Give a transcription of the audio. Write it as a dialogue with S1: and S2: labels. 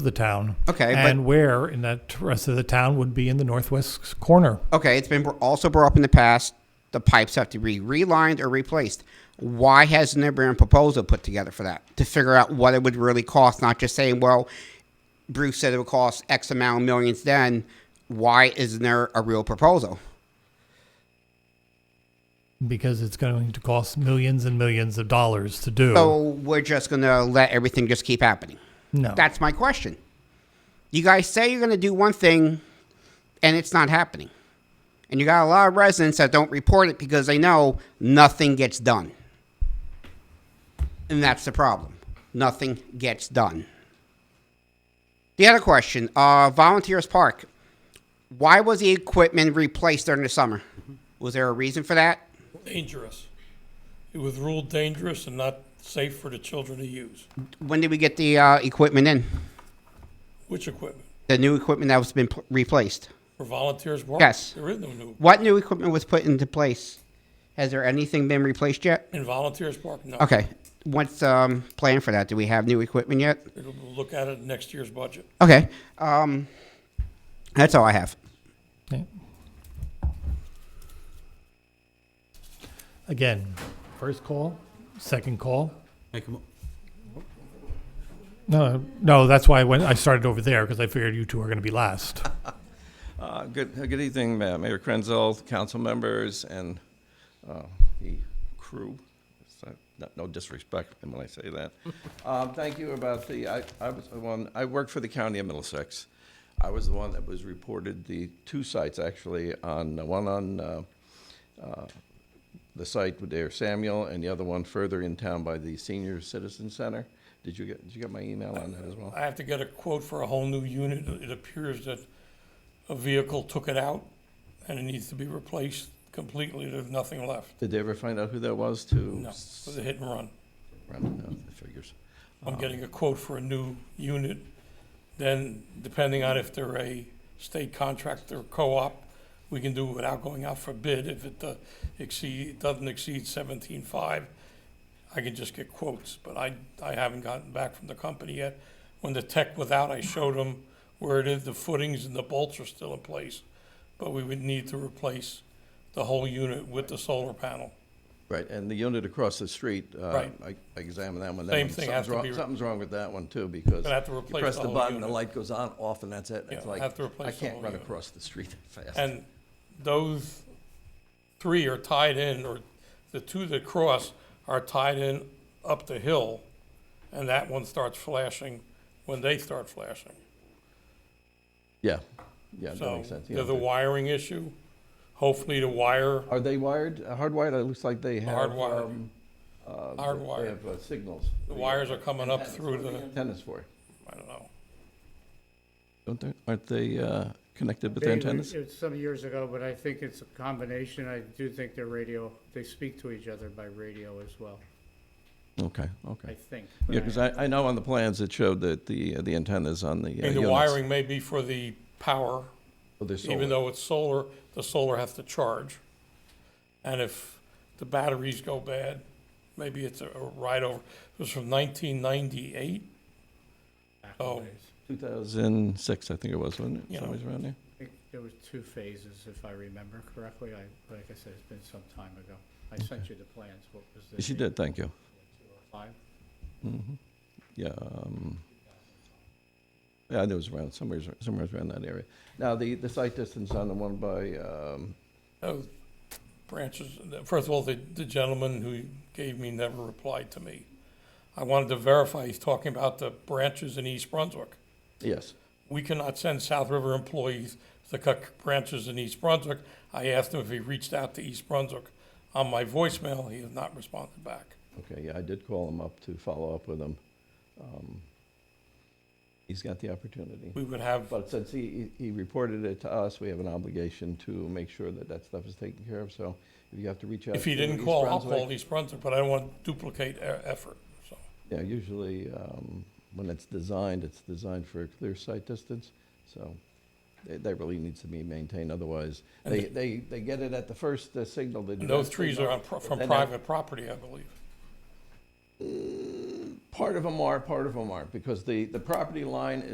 S1: of the town.
S2: Okay, but-
S1: And where in that rest of the town would be in the northwest corner.
S2: Okay, it's been br- also brought up in the past. The pipes have to be relined or replaced. Why hasn't there been a proposal put together for that to figure out what it would really cost? Not just saying, well, Bruce said it would cost X amount of millions. Then why isn't there a real proposal?
S1: because it's going to cost millions and millions of dollars to do.
S2: So we're just gonna let everything just keep happening.
S1: no,
S2: That's my question. You guys say you're gonna do one thing, and it's not happening. And you got a lot of residents that don't report it because they know nothing gets done. And that's the problem. Nothing gets done. The other question, uh, Volunteers Park. Why was the equipment replaced during the summer? Was there a reason for that?
S3: dangerous. It was ruled dangerous and not safe for the children to use.
S2: When did we get the uh, equipment in?
S3: Which equipment?
S2: The new equipment that was been pl- replaced?
S3: For volunteers work?
S2: Yes.
S3: There is no new,
S2: What new equipment was put into place? Has there anything been replaced yet?
S3: in volunteers park, no.
S2: Okay. What's um plan for that? Do we have new equipment yet?
S3: We'll look at it in next year's budget.
S2: Okay. Um, that's all I have.
S1: Yeah. Again, first call, second call.
S4: Make a, mo-
S1: No, no, that's why I went. I started over there because I figured you two are going to be last.
S5: Uh, Good, uh, good evening, Ma- Mayor Krenzel, council members, and uh, the crew. It's not- not- No disrespect when I say that. Um, Thank you about the, I I was the one, I worked for the county of Middlesex. I was the one that was reported the two sites, actually, on, one on uh, uh, the site with Air Samuel, and the other one further in town by the Senior Citizen Center. Did you get, did you get my email on that as well?
S3: I have to get a quote for a whole new unit. It appears that a vehicle took it out and it needs to be replaced completely. There's nothing left.
S5: Did they ever find out who that was to?
S3: No, it was a hit and run.
S5: Run, no, the figures.
S3: I'm getting a quote for a new unit. Then, depending on if they're a state contractor or co-op, we can do it without going out for bid. If it uh, exceed, doesn't exceed seventeen-five, I can just get quotes, but I, I haven't gotten back from the company yet. When the tech was out, I showed them where it is, the footings and the bolts are still in place, but we would need to replace the whole unit with the solar panel.
S5: Right, and the unit across the street, uh,
S3: Right.
S5: I I examined that one. that
S3: Same thing
S5: one- something's
S3: has to
S5: wrong-
S3: be-
S5: Something's wrong with that one too, because.
S3: Gonna have to
S5: you
S3: replace
S5: press
S3: the whole
S5: button, the
S3: unit.
S5: light goes on, off, and that's it. It's
S3: Yeah,
S5: like,
S3: have to replace
S5: I
S3: the
S5: can't
S3: whole
S5: run
S3: unit.
S5: across the street that fast.
S3: And those three are tied in, or the two that cross are tied in up the hill, and that one starts flashing when they start flashing.
S5: Yeah, yeah, that
S3: So
S5: makes sense. yeah.
S3: there's a wiring issue. Hopefully the wire,
S5: Are they wired, uh, hardwired? It looks like they have.
S3: Hardwired.
S5: um, uh,
S3: Hardwired.
S5: They have uh, signals.
S3: the wires are coming up
S5: Antennas.
S3: through
S5: What are
S3: the,
S5: Antennas for,
S3: I don't know.
S5: don't they, aren't they uh, connected with
S6: They-
S5: antennas?
S6: It was some years ago, but I think it's a combination. I do think they're radio, they speak to each other by radio as well,
S5: Okay,
S6: I
S5: okay.
S6: think.
S5: Yeah, because I I know on the plans it showed that the the antennas on the uh,
S3: I mean,
S5: units.
S3: the wiring may be for the power,
S5: Oh, they're solar.
S3: even though it's solar, the solar has to charge. And if the batteries go bad, maybe it's a a ride over. It was from nineteen ninety-eight. Oh,
S5: 2006, I think it was, wasn't it?
S3: Yeah.
S5: Somewhere around there?
S6: I think there was two phases, if I remember correctly. I, like I said, it's been some time ago. I sent you the plans. What was the?
S5: She
S6: date?
S5: did, thank you. Mm-hmm.
S6: Five?
S5: Yeah, um, yeah, it was around, somewhere, somewhere around that area. Now, the, the site distance on the one by, um,
S3: those uh, branches, first of all, the, the gentleman who gave me never replied to me. I wanted to verify, he's talking about the branches in East Brunswick.
S5: yes,
S3: We cannot send South River employees to cut branches in East Brunswick. I asked him if he reached out to East Brunswick. On my voicemail, he has not responded back.
S5: okay, yeah, I did call him up to follow up with him. Um, He's got the opportunity.
S3: We would have,
S5: But since he, he he reported it to us, we have an obligation to make sure that that stuff is taken care of, so if you have to reach out.
S3: if he
S5: to
S3: didn't
S5: East
S3: call, I'll
S5: Brunswick-
S3: call East Brunswick, but I don't want to duplicate e- effort, so.
S5: Yeah, usually um, when it's designed, it's designed for a clear sight distance, so that that really needs to be maintained, otherwise,
S3: And
S5: they, they, they get it at the first uh, signal. they do
S3: And those
S5: that
S3: trees are
S5: signal.
S3: on, pro- from
S5: Then they-
S3: private property, I believe.
S5: Part of them are, part of them aren't, because the, the property line